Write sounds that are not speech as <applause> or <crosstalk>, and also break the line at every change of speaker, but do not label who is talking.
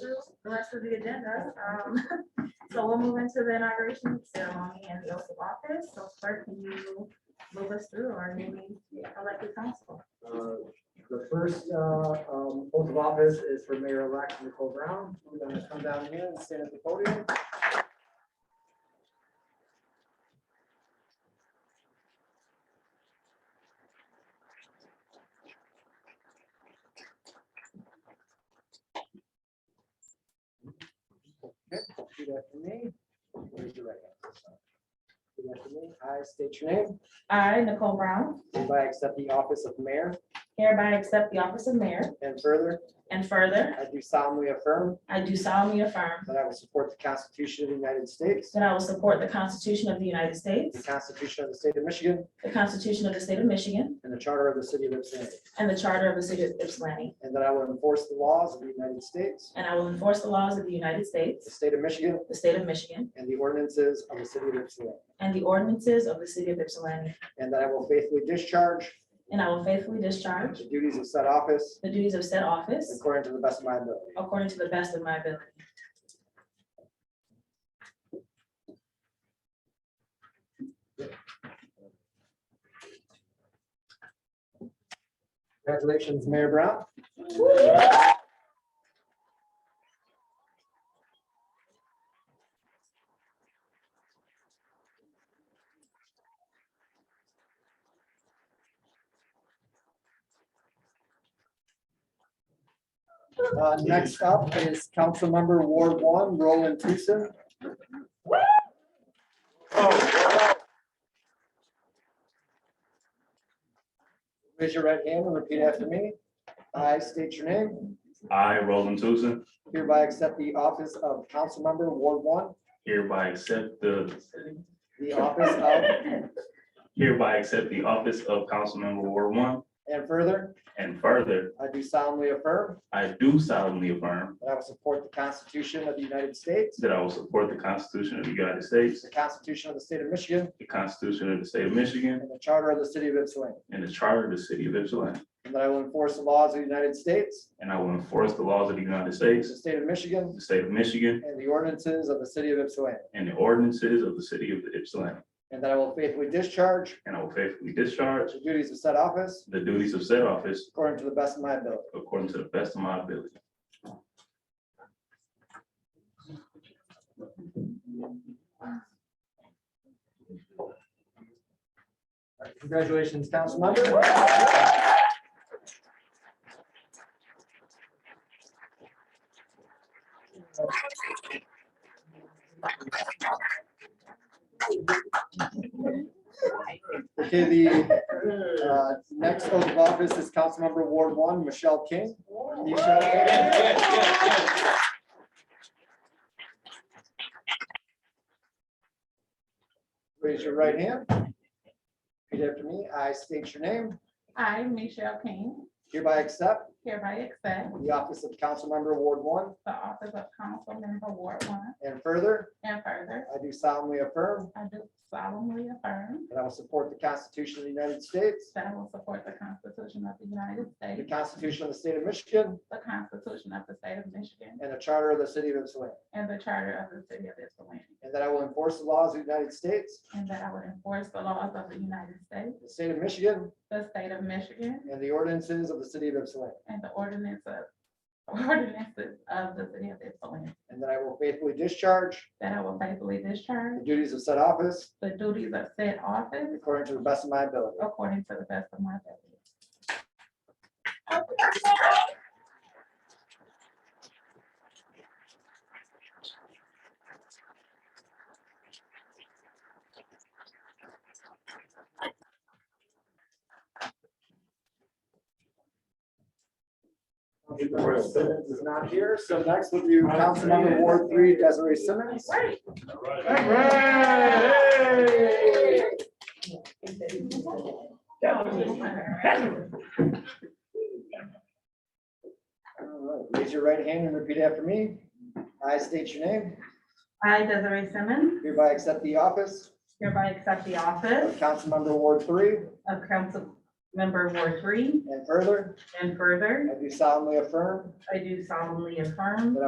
through the rest of the agenda. Um, <laughs> So we'll move into the inauguration ceremony and the oath of office. So clerk, can you move us through our newly elected council?
Uh, The first uh, um, oath of office is for Mayor-elect Nicole Brown. We're going to come down here and stand at the podium. Okay, Repeat after me. Raise your right hand. Repeat after me. I state your name.
I, Nicole Brown,
Hereby accept the office of mayor
hereby accept the office of mayor.
And further,
And further,
I do solemnly affirm
I do solemnly affirm
that I will support the Constitution of the United States,
that I will support the Constitution of the United
the
States,
Constitution of the State of Michigan,
the Constitution of the State of Michigan,
and the Charter of the City of Ypsilanti,
and the Charter of the City of Ypsilanti,
and that I will enforce the laws of the United States,
and I will enforce the laws of the United
the
States,
State of Michigan,
the State of Michigan,
and the ordinances of the City of Ypsilanti,
and the ordinances of the City of Ypsilanti,
and that I will faithfully discharge
and I will faithfully discharge
the duties of said office
the duties of said office
according to the best of my ability.
according to the best of my ability.
Congratulations, Mayor Brown. Uh, Next up is Councilmember Ward One, Roland Tucson. Raise your right hand and repeat after me. I state your name.
I, Roland Tucson,
Hereby accept the office of Councilmember Ward One,
hereby accept the,
the office of,
hereby accept the office of Councilmember Ward One.
and further,
And further,
I do solemnly affirm
I do solemnly affirm
that I will support the Constitution of the United States,
that I will support the Constitution of the United States,
the Constitution of the State of Michigan,
the Constitution of the State of Michigan,
and the Charter of the City of Ypsilanti,
and the Charter of the City of Ypsilanti.
and that I will enforce the laws of the United States,
And I will enforce the laws of the United
the
States,
State of Michigan,
the State of Michigan,
and the ordinances of the City of Ypsilanti,
and the ordinances of the City of Ypsilanti.
and that I will faithfully discharge
And I will faithfully discharge
the duties of said office
the duties of said office
according to the best of my ability.
according to the best of my ability.
Congratulations, Councilmember. Okay, the uh, next oath of office is Councilmember Ward One, Michelle King. Michelle King. Raise your right hand. Repeat after me. I state your name.
I, Michelle King,
Hereby accept
hereby accept
the office of Councilmember Ward One.
the office of council member Ward One,
And further,
and further,
I do solemnly affirm
I do solemnly affirm
that I will support the Constitution of the United States,
that I will support the Constitution of the United
the
States,
Constitution of the State of Michigan,
the Constitution of the State of Michigan,
and the Charter of the City of Ypsilanti,
and the Charter of the City of Ypsilanti,
and that I will enforce the laws of the United States,
and that I would enforce the laws of the United States,
the State of Michigan,
the State of Michigan,
and the ordinances of the City of Ypsilanti,
and the ordinance of ordinances of the City of Ypsilanti,
and that I will faithfully discharge
that I will faithfully discharge
the duties of said office
the duties of said office
according to the best of my ability.
according to the best of my ability.
Simmons is not here, so next will be Councilmember Ward Three, Desiree Simmons. All right, Raise your right hand and repeat after me. I state your name,
I, Desiree Simmons,
hereby accept the office
hereby accept the
of
office
Councilmember Ward Three,
of Council Member Ward Three,
and further,
and further,
I do solemnly affirm
I do solemnly affirm